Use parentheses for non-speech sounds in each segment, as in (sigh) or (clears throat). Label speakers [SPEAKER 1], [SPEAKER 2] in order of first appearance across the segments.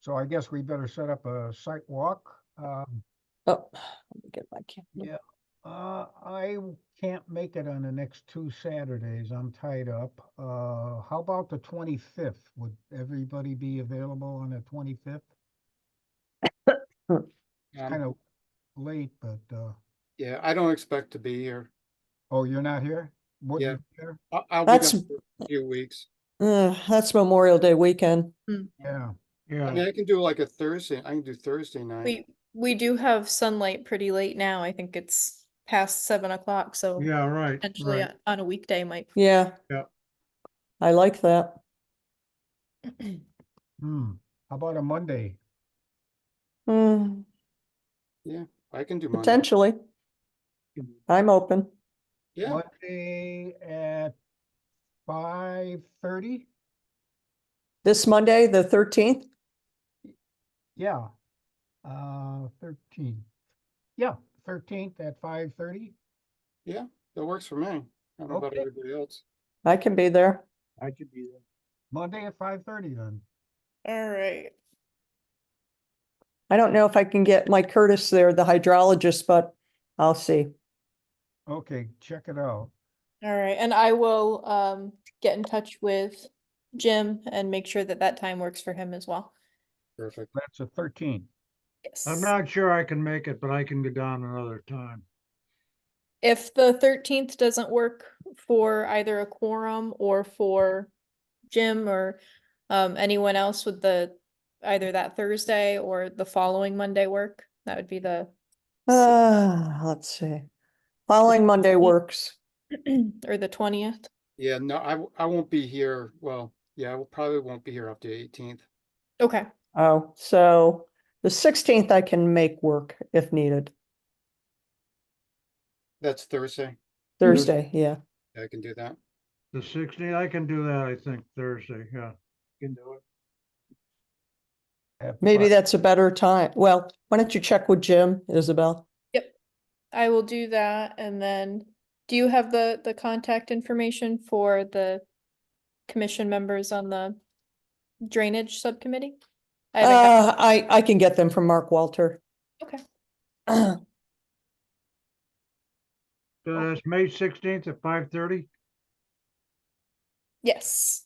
[SPEAKER 1] So I guess we better set up a site walk. Um,
[SPEAKER 2] Oh, let me get my camera.
[SPEAKER 1] Yeah. Uh, I can't make it on the next two Saturdays. I'm tied up. Uh, how about the twenty-fifth? Would everybody be available on the twenty-fifth? It's
[SPEAKER 3] Um,
[SPEAKER 1] kind of late, but, uh,
[SPEAKER 3] Yeah, I don't expect to be here.
[SPEAKER 1] oh, you're not here? Wouldn't
[SPEAKER 3] Yeah.
[SPEAKER 1] you be here?
[SPEAKER 3] I- I'll be
[SPEAKER 2] That's-
[SPEAKER 3] gone for a few weeks.
[SPEAKER 2] Uh, that's Memorial Day weekend.
[SPEAKER 1] Yeah,
[SPEAKER 3] I mean, I can do like a Thursday, I can do Thursday night.
[SPEAKER 4] We, we do have sunlight pretty late now. I think it's past seven o'clock, so
[SPEAKER 5] Yeah, right,
[SPEAKER 4] potentially
[SPEAKER 5] right.
[SPEAKER 4] on- on a weekday might.
[SPEAKER 2] Yeah.
[SPEAKER 5] Yeah.
[SPEAKER 2] I like that.
[SPEAKER 1] hmm. How about a Monday?
[SPEAKER 2] Hmm,
[SPEAKER 3] I can do Monday.
[SPEAKER 2] potentially. I'm open.
[SPEAKER 3] Yeah,
[SPEAKER 1] Monday at five thirty?
[SPEAKER 2] This Monday, the thirteenth?
[SPEAKER 1] Yeah. Uh, thirteen. Yeah, thirteenth at five thirty.
[SPEAKER 3] that works for me. I don't know about
[SPEAKER 1] Okay.
[SPEAKER 3] everybody else.
[SPEAKER 2] I can be there.
[SPEAKER 5] I could be there.
[SPEAKER 1] Monday at five thirty then.
[SPEAKER 4] All right.
[SPEAKER 2] I don't know if I can get Mike Curtis there, the hydrologist, but I'll see.
[SPEAKER 1] Okay, check it out.
[SPEAKER 4] All right, and I will, um, get in touch with Jim and make sure that that time works for him as well.
[SPEAKER 3] Perfect.
[SPEAKER 1] That's a thirteen.
[SPEAKER 4] Yes.
[SPEAKER 5] I'm not sure I can make it, but I can go down another time.
[SPEAKER 4] If the thirteenth doesn't work for either a quorum or for Jim or um, anyone else with the, either that Thursday or the following Monday work, that would be the, (clears throat)
[SPEAKER 2] Uh, let's see. Following Monday works.
[SPEAKER 4] or the twentieth.
[SPEAKER 3] Yeah, no, I, w- I won't be here. Well, yeah, I will- probably won't be here after the eighteenth.
[SPEAKER 4] Okay,
[SPEAKER 2] Oh, so the sixteenth I can make work if needed.
[SPEAKER 3] That's Thursday.
[SPEAKER 2] Thursday, yeah.
[SPEAKER 3] I can do that.
[SPEAKER 5] The sixteenth, I can do that, I think, Thursday, yeah. Can do it.
[SPEAKER 1] at
[SPEAKER 2] Maybe
[SPEAKER 1] five.
[SPEAKER 2] that's a better time. Well, why don't you check with Jim, Isabel?
[SPEAKER 4] I will do that and then, do you have the, the contact information for the commission members on the drainage subcommittee? I haven't got-
[SPEAKER 2] Uh, I, I can get them from Mark Walter.
[SPEAKER 4] Okay.
[SPEAKER 5] Uh, it's May sixteenth at five thirty?
[SPEAKER 4] Yes.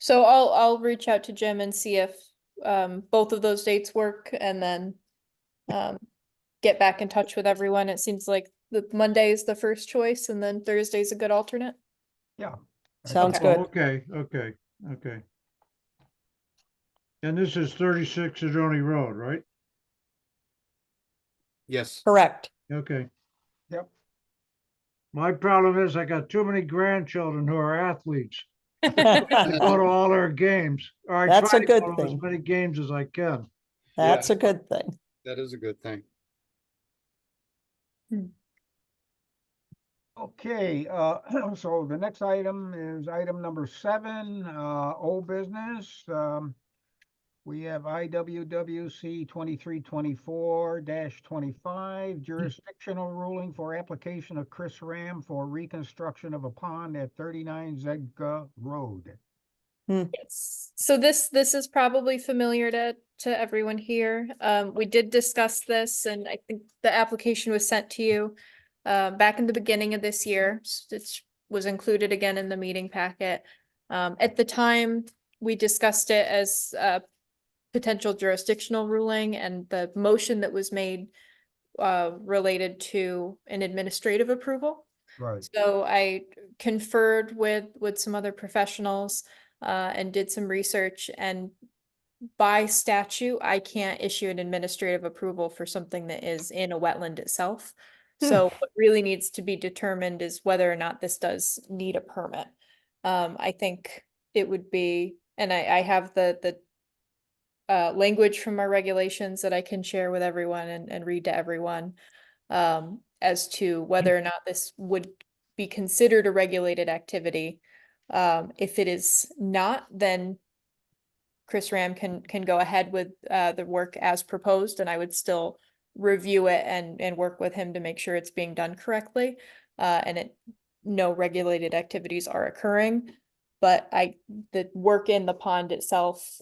[SPEAKER 4] So I'll, I'll reach out to Jim and see if, um, both of those dates work and then, um, get back in touch with everyone. It seems like the Monday is the first choice and then Thursday's a good alternate.
[SPEAKER 1] Yeah. I
[SPEAKER 2] (clears throat) Sounds
[SPEAKER 1] think-
[SPEAKER 2] good.
[SPEAKER 5] Oh, Okay, okay, okay. And this is thirty-six Sedoni Road, right?
[SPEAKER 3] Yes.
[SPEAKER 4] (laughs)
[SPEAKER 2] Correct. (laughs)
[SPEAKER 5] Okay.
[SPEAKER 1] Yep.
[SPEAKER 5] My problem is I got too many grandchildren who are athletes. I go to all their games, or I
[SPEAKER 2] That's
[SPEAKER 5] try
[SPEAKER 2] a
[SPEAKER 5] to go
[SPEAKER 2] good
[SPEAKER 5] to as
[SPEAKER 2] thing.
[SPEAKER 5] many games as I can.
[SPEAKER 2] That's a good thing.
[SPEAKER 3] That is a good thing.
[SPEAKER 1] Okay, uh, (clears throat) so the next item is item number seven, uh, old business. Um, we have IWWC twenty-three twenty-four twenty-five jurisdictional ruling for application of Chris Ram for reconstruction of a pond at thirty-nine Zegga Road.
[SPEAKER 4] Yes. So this, this is probably familiar to, to everyone here. Um, we did discuss this and I think the application was sent to you uh, back in the beginning of this year. S- It was included again in the meeting packet. Um, at the time, we discussed it as a potential jurisdictional ruling and the motion that was made uh, related to an administrative approval.
[SPEAKER 1] Right.
[SPEAKER 4] So I conferred with, with some other professionals, uh, and did some research and by statute, I can't issue an administrative approval for something that is in a wetland itself.
[SPEAKER 2] Hmm.
[SPEAKER 4] So what really needs to be determined is whether or not this does need a permit. Um, I think it would be, and I, I have the, the uh, language from our regulations that I can share with everyone and, and read to everyone um, as to whether or not this would be considered a regulated activity. Um, if it is not, then Chris Ram can, can go ahead with, uh, the work as proposed and I would still review it and, and work with him to make sure it's being done correctly. Uh, and it, no regulated activities are occurring. But I, the work in the pond itself